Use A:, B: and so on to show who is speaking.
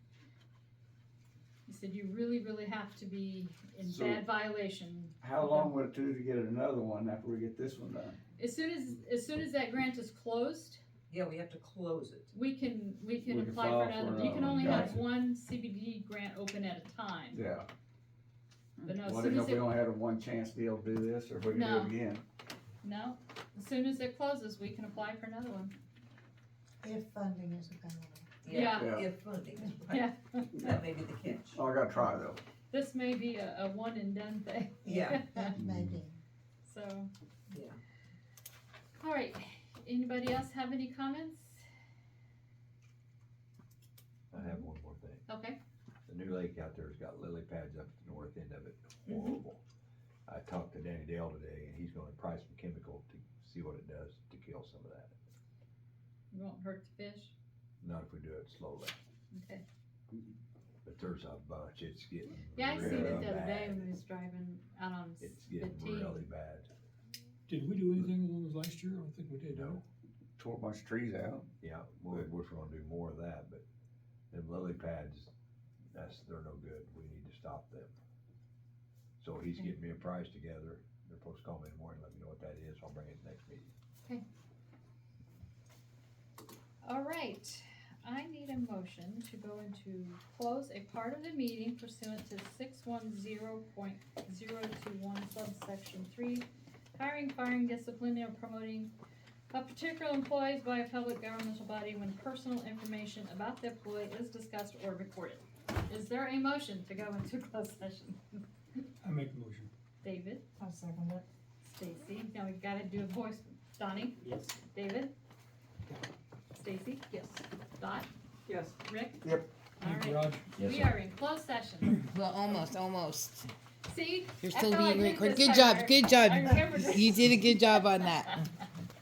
A: said you really, really have to be in
B: So-
A: bad violation.
B: How long would it do to get another one after we get this one done?
A: As soon as, as soon as that grant is closed,
C: Yeah, we have to close it.
A: we can, we can
B: We can
A: apply
B: file
A: for
B: for
A: another,
B: another
A: you can
B: one.
A: only have
B: Gotcha.
A: one CBD grant open at a time.
B: Yeah,
A: But no, as
B: what
A: soon
B: if
A: as
B: we
A: it,
B: don't have a one chance deal to do this, or if we can do
A: No.
B: it again?
A: no, as soon as it closes, we can apply for another one.
D: If funding is available.
A: Yeah.
B: Yeah.
C: If funding is right.
A: Yeah.
C: That may be the catch.
B: Oh, I gotta try though.
A: This may be a, a one and done thing.
C: Yeah.
D: That may be.
A: So.
C: Yeah.
A: All right, anybody else have any comments?
E: I have one more thing.
A: Okay,
E: The new lake out there's got lily pads up at the north end of it,
A: Mm-hmm.
E: horrible. I talked to Danny Dale today and he's gonna try some chemical to see what it does to kill some of that,
A: you won't hurt the fish,
E: not if we do it slowly.
A: okay.
E: But there's a bunch, it's getting
A: Yeah, I seen it
E: really
A: the other day
E: bad.
A: when we was driving out on s-
E: It's
A: the
E: getting
A: T.
E: really bad,
F: Did we do anything with those last year? I don't think we
E: you
F: did,
E: know,
F: no.
B: Tore a bunch of trees out.
E: yeah, we're, we're gonna do more of that, but them lily pads, that's, they're no good, we need to stop them. So he's
A: Okay.
E: getting me a price together, they're supposed to call me in the morning, let me know what that is, I'll bring it next meeting.
A: All right, I need a motion to go into close a part of the meeting pursuant to six one zero point zero two one subsection three. Hiring, firing, disciplining, or promoting of particular employees by a public governmental body when personal information about the employee is discussed or recorded. Is there a motion to go into closed session?
F: I make a motion.
A: David,
D: I'll second it.
A: Stacy, now we've gotta do a voice, Donnie?
F: Yes.
A: David? Stacy? Yes. Dot?
C: Yes.
A: Rick?
B: Yep.
A: All
F: Thank you,
A: right,
F: Raj.
A: we are in closed session.
G: Well, almost, almost.
A: See?
G: You're
A: I
G: still
A: feel like
G: being
A: Rick
G: recorded.
A: this
G: Good
A: time.
G: job, good
A: I
G: job.
A: remembered it.
G: You did a good job on that.